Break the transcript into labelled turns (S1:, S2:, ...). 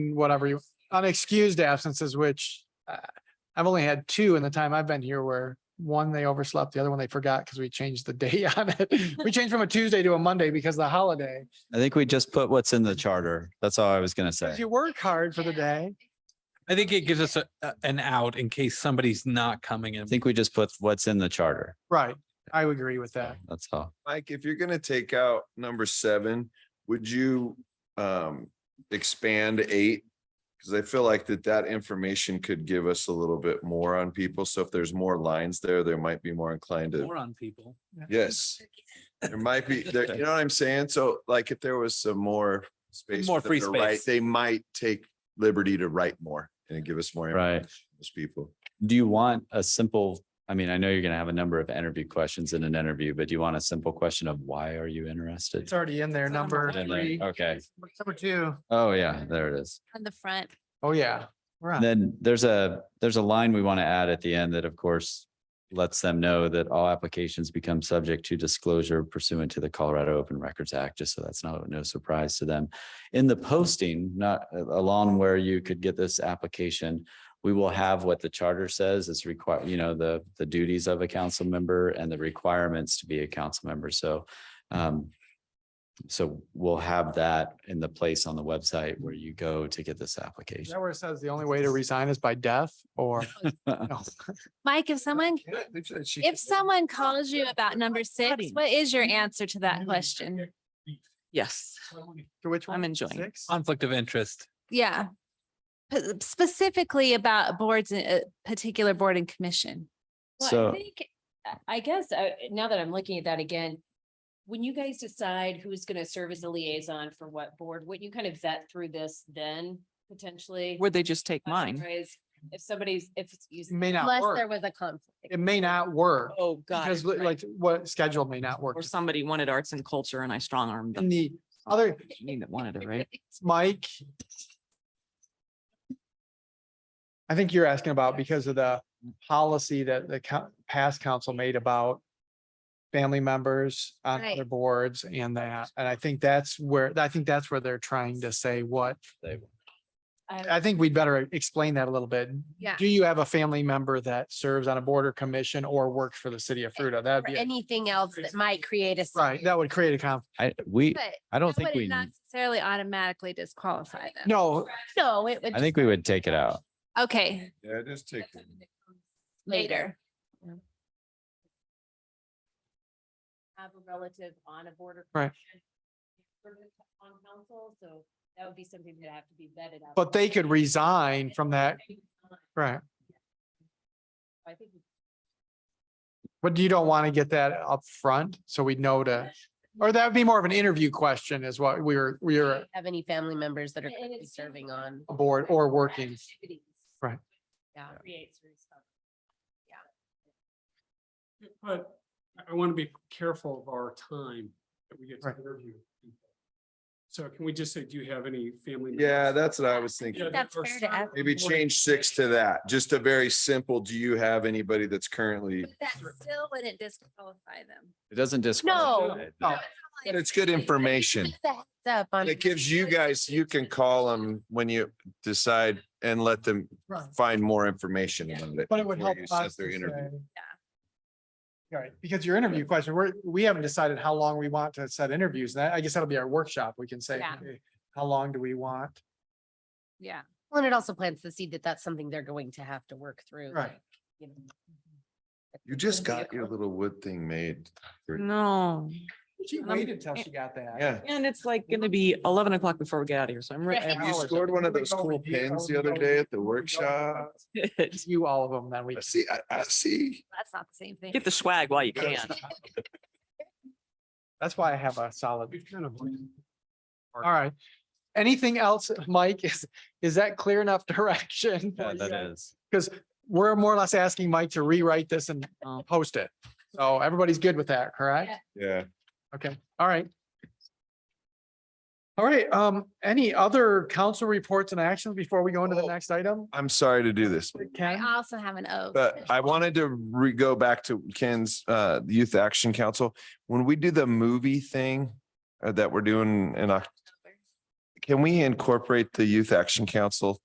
S1: whatever you, unexcused absences, which uh, I've only had two in the time I've been here where one, they overslept, the other one they forgot because we changed the day on it. We changed from a Tuesday to a Monday because of the holiday.
S2: I think we just put what's in the charter. That's all I was gonna say.
S1: If you work hard for the day,
S3: I think it gives us a, a- an out in case somebody's not coming in.
S2: I think we just put what's in the charter.
S1: right, I would agree with that.
S2: That's all.
S4: Mike, if you're gonna take out number seven, would you um expand eight? Cause I feel like that that information could give us a little bit more on people. So if there's more lines there, there might be more inclined to,
S3: More on people.
S4: yes. There might be, there, you know what I'm saying? So like if there was some more space.
S3: More
S4: for them
S3: free
S4: to write,
S3: space.
S4: They might take liberty to write more and give us more.
S2: Right.
S4: information on Those people.
S2: Do you want a simple, I mean, I know you're gonna have a number of interview questions in an interview, but do you want a simple question of why are you interested?
S1: It's already in there,
S3: It's on the
S1: number
S3: line.
S2: And then,
S1: three.
S2: Okay.
S1: Number two.
S2: Oh, yeah, there it is.
S5: On the front.
S1: Oh, yeah.
S2: And
S1: Right.
S2: Then there's a, there's a line we want to add at the end that of course lets them know that all applications become subject to disclosure pursuant to the Colorado Open Records Act, just so that's not, no surprise to them. In the posting, not uh, along where you could get this application, we will have what the charter says is required, you know, the, the duties of a council member and the requirements to be a council member. So um, so we'll have that in the place on the website where you go to get this
S1: Is
S2: application.
S1: that where it says the only way to resign is by death or? No.
S5: Mike, if someone,
S4: They said she
S5: if someone calls you about number six, what is your answer to that question?
S6: Yes,
S1: To which one?
S6: I'm enjoying.
S1: Six?
S3: Conflict of interest.
S5: Yeah. P- Specifically about boards, a particular board and commission.
S7: Well,
S2: So-
S7: I think, I- I guess, uh, now that I'm looking at that again, when you guys decide who's gonna serve as the liaison for what board, wouldn't you kind of vet through this then potentially?
S6: where they just take mine.
S7: Otherwise, If somebody's, if it's
S1: It
S7: used.
S1: May not work.
S7: was a conflict.
S1: It may not work
S6: Oh, God.
S1: because li- like what schedule may not work.
S6: Or somebody wanted arts and culture and I strong armed
S1: In
S6: them.
S1: the other,
S6: Me that wanted it, right?
S1: Mike. I think you're asking about because of the policy that the co- past council made about family members on
S5: Right.
S1: other boards and that. And I think that's where, I think that's where they're trying to say what, I think we'd better explain that a little bit.
S5: Yeah.
S1: Do you have a family member that serves on a board or commission or works for the city of Fruta? That'd be,
S7: anything else
S1: that
S7: might create a.
S1: right, that would create a conflict.
S2: I, we,
S5: But
S2: I don't
S5: that
S2: think we,
S5: would not necessarily automatically disqualify them.
S1: No,
S7: No, it would.
S2: I think we would take it out.
S5: Okay,
S4: Yeah, just take.
S5: later.
S7: Have a relative on a board. or
S1: Right.
S7: commission, servant On council, so that would be something that have to be vetted out.
S1: but they could resign from that, right?
S7: I think. we-
S1: But you don't want to get that up front, so we know to, or that would be more of an interview question is what we were, we were
S8: have any family members that are
S7: And
S8: currently
S7: it's-
S8: serving on?
S1: aboard or working.
S7: Activities.
S1: Right.
S8: Yeah.
S7: Creates responsibility.
S9: But I- I want to be careful of our time that we get to
S1: Right.
S9: interview. people. So can we just say, do you have any family? members?
S4: Yeah, that's what I was thinking.
S9: Yeah, that
S5: That's
S9: are
S5: fair to
S9: serving
S5: ask.
S9: on
S4: Maybe
S9: board.
S4: change six to that, just a very simple, do you have anybody that's currently,
S5: But that still wouldn't disqualify them.
S2: It doesn't disqualify. it.
S1: No.
S4: but it's good information.
S8: Just a heads up on-
S4: It gives you guys, you can call them when you decide and let them
S1: Right.
S4: find more information about it.
S1: But it would
S4: before
S1: help
S4: you set
S1: us
S4: their
S1: to
S4: interview.
S1: say- Right, because your interview question, we're, we haven't decided how long we want to set interviews. That, I guess that'll be our workshop. We can say,
S7: Yeah.
S1: okay, how long do we want?
S5: Yeah.
S8: Well, And it also plants the seed that that's something they're going to have to work through.
S1: Right.
S8: like, you know.
S4: You just got your little wood thing made.
S6: No.
S1: She
S6: And I'm-
S1: waited till she got that.
S4: Yeah.
S6: And it's like gonna be eleven o'clock before we get out of here, so I'm. re-
S5: Right.
S4: You
S6: I
S4: scored one of those
S1: Go
S4: cool
S1: review-
S4: pens
S1: go
S4: the other
S1: review-
S4: day at the
S1: go review
S4: workshop.
S6: apologize.
S1: You all of them, then we.
S4: I see, I, I see.
S5: That's not the same thing.
S6: Get the swag while you can.
S1: That's why I have a solid.
S9: We've kind of.
S1: All right. Anything else, Mike? Is, is that clear enough direction?
S2: Yeah, That is.
S1: Because we're more or less asking Mike to rewrite this and uh,
S6: Oh.
S1: post it. So everybody's good with that, correct?
S7: Yeah.
S4: Yeah.
S1: Okay, all right. All right, um, any other council reports and actions before we go into the
S4: Oh.
S1: next item?
S4: I'm sorry to do this,
S1: Ken?
S5: I also have an O.
S4: But I wanted to re, go back to Ken's, uh, Youth Action Council. When we do the movie thing uh, that we're doing in October, Can we incorporate the Youth Action Council